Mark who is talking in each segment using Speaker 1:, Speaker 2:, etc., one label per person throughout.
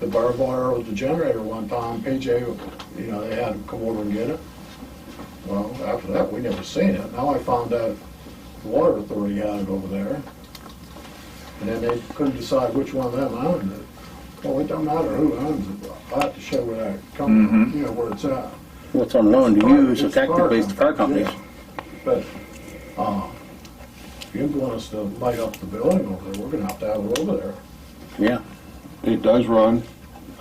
Speaker 1: the barbed wire with the generator one time, PJ, you know, they had to come over and get it. Well, after that, we never seen it. Now I found out the water authority had it over there. And then they couldn't decide which one of them owned it. Well, it don't matter who owns it. I have to show where that come,
Speaker 2: Mm-hmm.
Speaker 1: you know, where it's at.
Speaker 2: What's on loan to you
Speaker 1: It's
Speaker 2: is
Speaker 1: a
Speaker 2: effective based to car companies.
Speaker 1: yeah. But, uh, if you want us to light up the building over there, we're gonna have to have it over there.
Speaker 2: Yeah.
Speaker 3: It does run.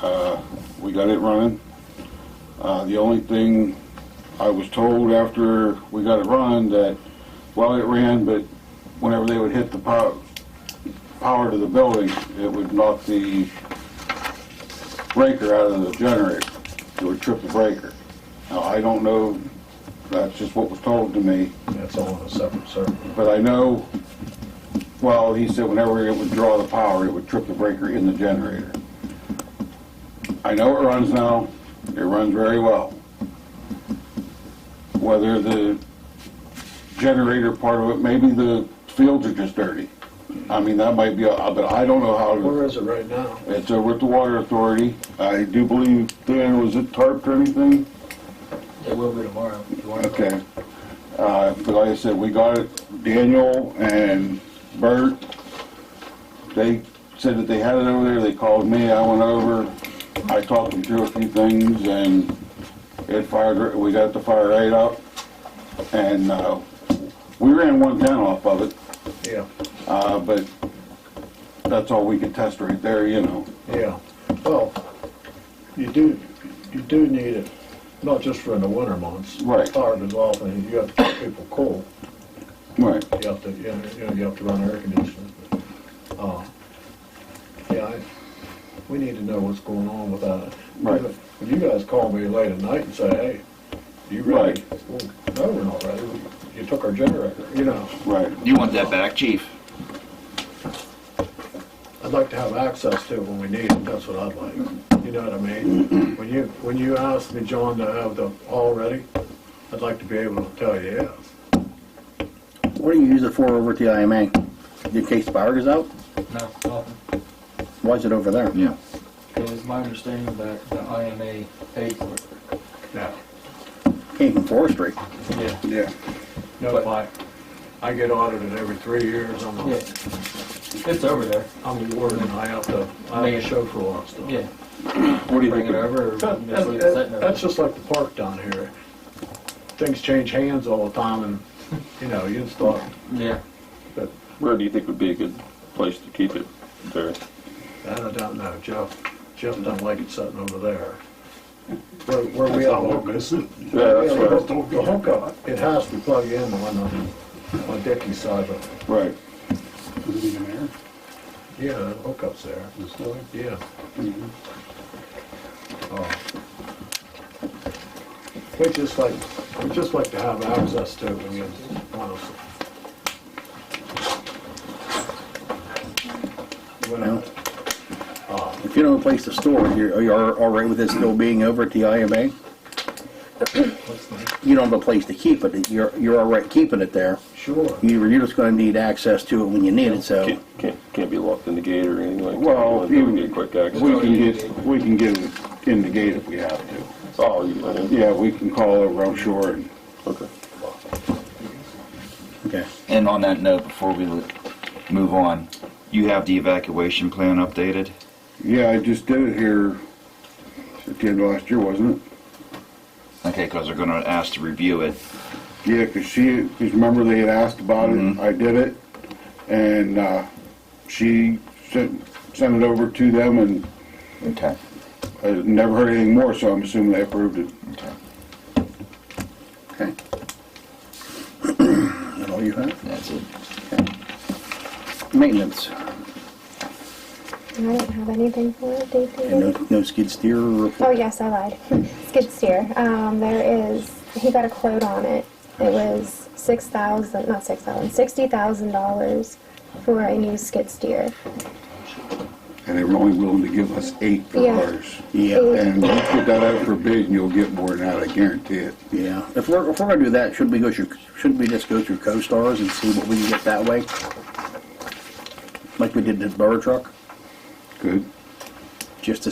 Speaker 3: Uh, We got it running. Uh, The only thing I was told after we got it running that, well, it ran, but whenever they would hit the pow- power to the building, it would knock the breaker out of the generator. It would trip the breaker. Now, I don't know, that's just what was told to me.
Speaker 1: That's all in a separate circuit.
Speaker 3: But I know, well, he said whenever it would draw the power, it would trip the breaker in the generator. I know it runs now, it runs very well. Whether the generator part of it, maybe the fields are just dirty. I mean, that might be, a- but I don't know how, to-
Speaker 1: Where is it right now?
Speaker 3: it's over at the water authority. I do believe, Dan, was it tarped or anything?
Speaker 4: It will be tomorrow, if you want to go.
Speaker 3: Okay. Uh, But like I said, we got it, Daniel and Bert, they said that they had it over there, they called me, I went over, I talked them through a few things, and it fired, we got the fire rate up, and uh, we ran one down off of it,
Speaker 1: Yeah,
Speaker 3: uh, but that's all we could test right there, you know.
Speaker 1: yeah. Well, you do, you do need it, not just for in the winter months.
Speaker 3: Right.
Speaker 1: Fire goes off and you have to keep people cool.
Speaker 3: Right.
Speaker 1: You have to, you know, you know, you have to run air conditioning. Uh, Yeah, I, we need to know what's going on with that.
Speaker 3: Right.
Speaker 1: If you guys call me late at night and say, hey, you ready? Well, No, we're not ready. You took our generator, you know.
Speaker 3: Right.
Speaker 5: You want that back, chief?
Speaker 1: I'd like to have access to it when we need it, that's what I'd like. You know what I mean? When you, when you asked me, John, to have the all ready, I'd like to be able to tell you yes.
Speaker 2: What do you use it for over at the IMA? In case the power goes out?
Speaker 4: No, nothing.
Speaker 2: Why is it over there?
Speaker 5: Yeah.
Speaker 4: It was my understanding that the IMA paid for it.
Speaker 1: Now,
Speaker 2: Came from forestry.
Speaker 4: Yeah.
Speaker 3: Yeah.
Speaker 1: no, I, I get audited every three years, I'm
Speaker 4: Yeah.
Speaker 1: a
Speaker 4: It's over there.
Speaker 1: I'm the warden, I have to, I have to show for a lot of stuff.
Speaker 4: Yeah.
Speaker 3: What do you
Speaker 4: Bring
Speaker 3: think?
Speaker 4: it
Speaker 3: of-
Speaker 4: over or
Speaker 1: That-
Speaker 4: just leave it
Speaker 1: that-
Speaker 4: sitting over?
Speaker 1: That's just like the park down here. Things change hands all the time and, you know, you install,
Speaker 4: Yeah.
Speaker 1: but
Speaker 6: Where do you think would be a good place to keep it there?
Speaker 1: that I don't know, Jeff, Jeff doesn't like it sitting over there. Where, where we
Speaker 3: That's
Speaker 1: at?
Speaker 3: not
Speaker 1: Lucas.
Speaker 6: Yeah, that's
Speaker 1: Yeah,
Speaker 6: right.
Speaker 1: but The the hookup, it has to plug in on the, on Dickie's side, but,
Speaker 3: Right.
Speaker 1: yeah, the hookup's there. Yeah. Oh. We just like, we just like to have access to it when you want us. When I-
Speaker 2: Yeah. If you don't have a place to store it, you're, you're all right with it still being over at the IMA?
Speaker 4: What's the-
Speaker 2: You don't have a place to keep it, you're, you're all right keeping it there.
Speaker 1: Sure.
Speaker 2: You're, you're just gonna need access to it when you need it, so.
Speaker 6: Can't, can't, can't be locked in the gate or anything like that?
Speaker 3: Well,
Speaker 6: You
Speaker 3: you-
Speaker 6: wouldn't get quick access.
Speaker 3: We can get, we can get it in the gate if we have to.
Speaker 6: Oh, you, yeah,
Speaker 3: Yeah, we can call over, I'm sure, and
Speaker 6: okay.
Speaker 2: Okay.
Speaker 5: And on that note, before we l- move on, you have the evacuation plan updated?
Speaker 3: Yeah, I just did it here at the end of last year, wasn't it?
Speaker 5: Okay, because they're gonna ask to review it.
Speaker 3: Yeah, 'cause she, because remember they had asked about it, I did it, and uh, she sent, sent it over to them, and
Speaker 5: Okay.
Speaker 3: I never heard anything more, so I'm assuming they approved it.
Speaker 5: Okay.
Speaker 2: Okay. That all you have?
Speaker 5: That's it.
Speaker 2: Maintenance,
Speaker 7: I don't have anything for it, Dave.
Speaker 2: and
Speaker 7: David.
Speaker 2: no, no skid steer
Speaker 7: Oh,
Speaker 2: report?
Speaker 7: yes, I lied. Skid steer. Um, there is, he got a quote on it. It was six thousand, not six thousand, sixty thousand dollars for a new skid steer.
Speaker 3: And they were only willing to give us eight for
Speaker 7: Yeah.
Speaker 3: ours.
Speaker 2: Yeah,
Speaker 3: And you put that out for bid, and you'll get more than that, I guarantee it.
Speaker 2: yeah. If we're, if we're gonna do that, should we go through, shouldn't we just go through co-stars and see what we can get that way? Like we did the burr truck,
Speaker 3: Good?
Speaker 2: just to